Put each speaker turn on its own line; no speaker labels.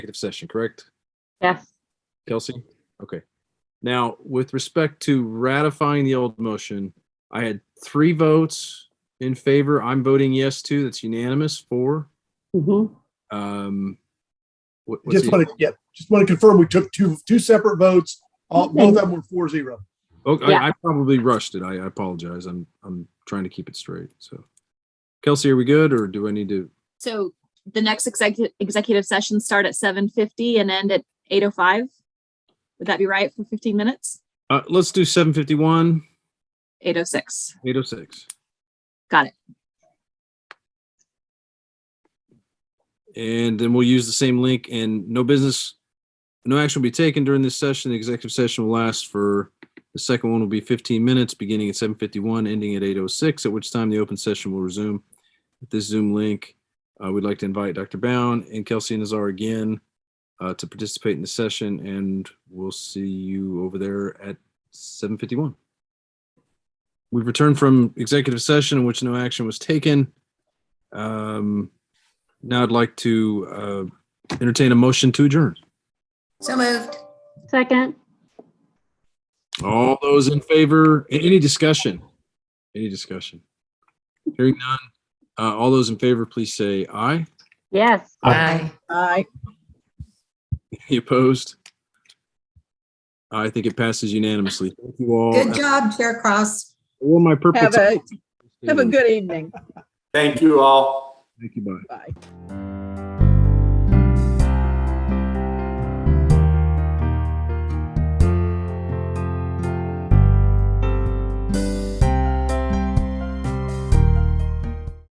executive session, correct?
Yes.
Kelsey? Okay. Now, with respect to ratifying the old motion, I had three votes in favor. I'm voting yes too. That's unanimous. Four.
Mm-hmm.
Um, what, what's
Just
the-
want to, yeah, just want to confirm, we took two, two separate votes. All, both of them were four zero.
Oh,
Yeah.
I, I probably rushed it. I, I apologize. I'm, I'm trying to keep it straight. So Kelsey, are we good or do I need to?
So the next executive, executive session start at seven fifty and end at eight oh five? Would that be right for fifteen minutes?
Uh, let's do 751,
Eight oh six.
806.
Got it.
And then we'll use the same link and no business, no action will be taken during this session. The executive session will last for, the second one will be 15 minutes, beginning at 7:51, ending at 8:06, at which time the open session will resume. With this Zoom link, uh, we'd like to invite Dr. Bound and Kelsey Nazar again uh, to participate in the session, and we'll see you over there at 7:51. We've returned from executive session in which no action was taken. Um, now I'd like to uh, entertain a motion to adjourn.
So moved.
Second.
All those in favor, a- any discussion? Any discussion? Hearing none. Uh, All those in favor, please say aye.
Yes.
Aye.
Aye.
Any opposed? I think it passes unanimously. Thank you all.
Good job, Chair Cross.
All my purple. Mm.
Have a- Have a good evening.
Thank you all.
Thank you, bye.
Bye.